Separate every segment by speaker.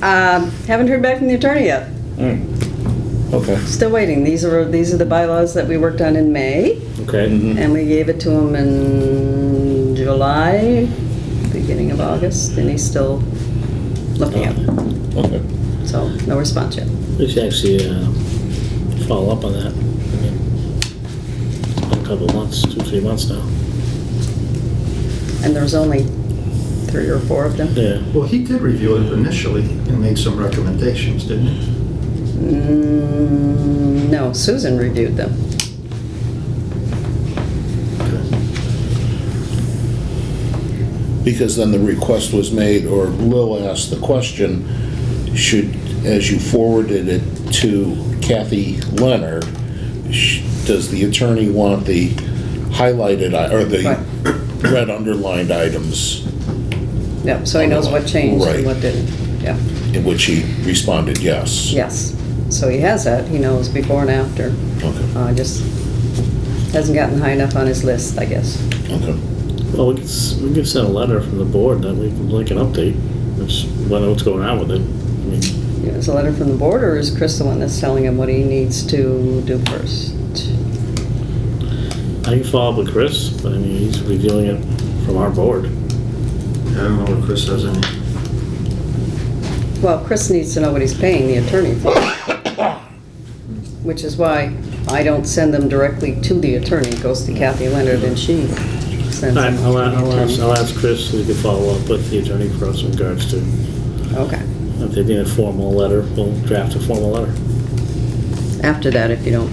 Speaker 1: Um, haven't heard back from the attorney yet.
Speaker 2: Mm.
Speaker 3: Okay.
Speaker 1: Still waiting. These are, these are the bylaws that we worked on in May,
Speaker 2: Okay.
Speaker 1: and we gave it to him in July, beginning of August, and he's still looking at it.
Speaker 3: Okay.
Speaker 1: So, no response yet.
Speaker 2: We should actually uh, follow up on that. I mean, it's been a couple of months, two, three months now.
Speaker 1: And there's only three or four of them.
Speaker 2: Yeah.
Speaker 4: Well, he did review it initially and made some recommendations, didn't he?
Speaker 1: Mm, No, Susan reviewed them.
Speaker 3: Because then the request was made, or Lil asked the question, should, as you forwarded it to Kathy Leonard, sh- does the attorney want the highlighted, i- or the red underlined items?
Speaker 1: Yep, so he knows what changed and what didn't. Yeah,
Speaker 3: In which he responded, yes.
Speaker 1: yes. So he has that. He knows before and after.
Speaker 3: Okay,
Speaker 1: Uh, just hasn't gotten high enough on his list, I guess.
Speaker 3: okay.
Speaker 2: Well, we can, s- we can send a letter from the board that we can link an update, which, whether what's going on with it. I mean,
Speaker 1: Yeah, Is a letter from the board, or is Chris the one that's telling him what he needs to do first?
Speaker 2: I can follow up with Chris, but I mean, he's reviewing it from our board.
Speaker 4: I don't know what Chris has in it.
Speaker 1: Well, Chris needs to know what he's paying the attorney for. Which is why I don't send them directly to the attorney. It goes to Kathy Leonard, and she
Speaker 2: All
Speaker 1: sends
Speaker 2: right,
Speaker 1: them to
Speaker 2: I'll, a- I'll
Speaker 1: the
Speaker 2: ask,
Speaker 1: attorney.
Speaker 2: I'll ask Chris if he could follow up with the attorney for us in regards to,
Speaker 1: Okay.
Speaker 2: if they need a formal letter, we'll draft a formal letter.
Speaker 1: After that, if you don't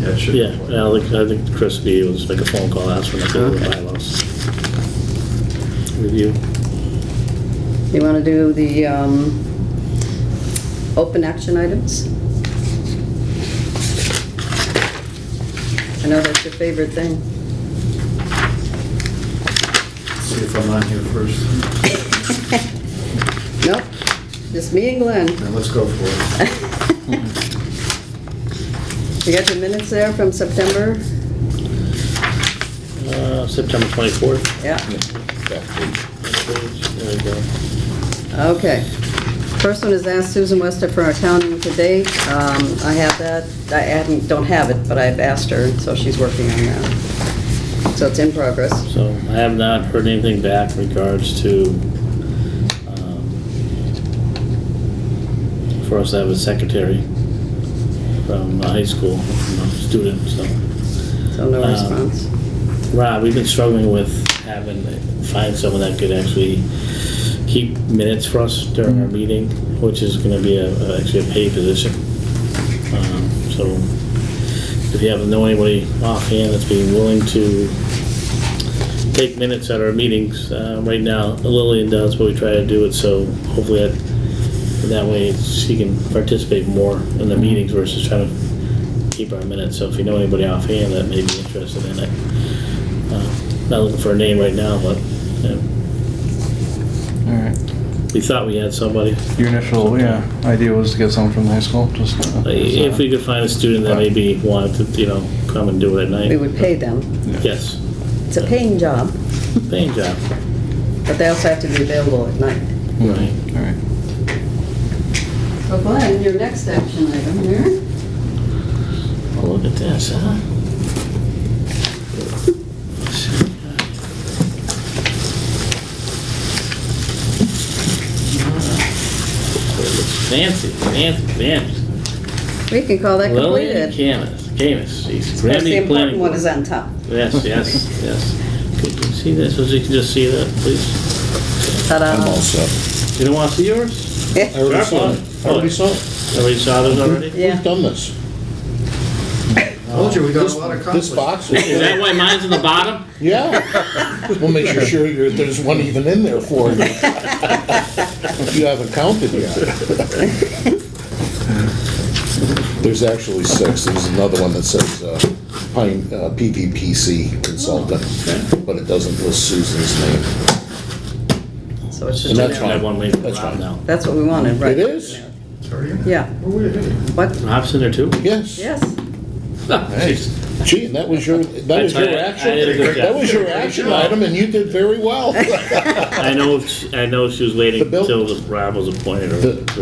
Speaker 4: Yeah, it should.
Speaker 2: Yeah, yeah, I think, I think Chris B was make a phone call, ask for an update of the bylaws. Review.
Speaker 1: You want to do the um, open action items? I know that's your favorite thing.
Speaker 4: See if I'm on here first.
Speaker 1: Nope, just me and Glenn.
Speaker 4: Then let's go for it.
Speaker 1: You got the minutes there from September?
Speaker 2: Uh, September twenty-fourth.
Speaker 1: Yeah,
Speaker 3: Yeah, back page.
Speaker 2: There you go.
Speaker 1: okay. First one is ask Susan Wester for our town meeting today. Um, I have that, I hadn't- don't have it, but I've asked her, so she's working on that. So it's in progress.
Speaker 2: So I have not heard anything back in regards to, um, for us to have a secretary from the high school, from a student, so.
Speaker 1: So no
Speaker 2: Um,
Speaker 1: response.
Speaker 2: Rob, we've been struggling with having, find someone that could actually keep minutes for us during our meeting, which is gonna be a, actually a paid position. Um, So if you haven't know anybody offhand that's being willing to take minutes at our meetings, uh, right now Lillian does, but we try to do it so hopefully that, that way she can participate more in
Speaker 1: Mm-hmm.
Speaker 2: the meetings versus trying to keep our minutes. So if you know anybody offhand that may be interested in it, uh, Not looking for a name right now, but yeah,
Speaker 5: All right.
Speaker 2: we thought we had somebody.
Speaker 5: Your initial, yeah, idea was to get someone from the high school, just. uh,
Speaker 2: If we could find a student that maybe wanted to, you know, come and do it at
Speaker 1: We
Speaker 2: night.
Speaker 1: would pay them.
Speaker 2: Yes,
Speaker 1: It's a paying job.
Speaker 2: paying job.
Speaker 1: But they also have to be available at night.
Speaker 2: Right.
Speaker 5: All right.
Speaker 1: So Glenn, your next action item here.
Speaker 2: Well, Oh, look at this, huh? Fancy, fancy, fancy.
Speaker 1: We can call that
Speaker 2: Lillian
Speaker 1: completed.
Speaker 2: Camus, Camus, she's
Speaker 1: That's the
Speaker 2: Grammy
Speaker 1: important
Speaker 2: Planning
Speaker 1: one
Speaker 2: Board.
Speaker 1: is on top.
Speaker 2: Yes, yes, yes. Could you see this? So you can just see that, please.
Speaker 3: I'm all
Speaker 1: Ta-da.
Speaker 3: set.
Speaker 2: You don't want to see yours?
Speaker 3: I already saw it. I already saw it.
Speaker 2: Already saw those already?
Speaker 3: We've
Speaker 1: Yeah,
Speaker 3: done this.
Speaker 4: Told you, we got
Speaker 3: This
Speaker 4: a lot of
Speaker 3: this
Speaker 4: conflict.
Speaker 3: box
Speaker 2: Is
Speaker 3: is,
Speaker 2: that why mine's in the bottom?
Speaker 3: yeah. We'll make sure you're- there's one even in there for you. If you haven't counted yet. There's actually six. There's another one that says uh, Pine, uh, PVPC consultant, but it doesn't list Susan's name.
Speaker 1: so it's
Speaker 3: And
Speaker 1: just in
Speaker 3: that's
Speaker 2: I
Speaker 1: there.
Speaker 2: have one waiting for
Speaker 3: That's
Speaker 2: Rob
Speaker 3: fine.
Speaker 2: now.
Speaker 1: That's what we wanted, right?
Speaker 3: It is?
Speaker 4: Sorry.
Speaker 1: Yeah,
Speaker 4: Oh, wait, hey.
Speaker 1: what,
Speaker 2: Rob's in there too?
Speaker 3: Yes.
Speaker 1: yes.
Speaker 2: Jeez.
Speaker 3: Gee, and that was your, that was
Speaker 2: I- I-
Speaker 3: your
Speaker 2: I did a
Speaker 3: action,
Speaker 2: good
Speaker 3: that
Speaker 2: job.
Speaker 3: was your action item, and you did very well.
Speaker 2: I know, she- I know she was waiting
Speaker 3: The bill-
Speaker 2: until the- Rob was appointed or
Speaker 3: The-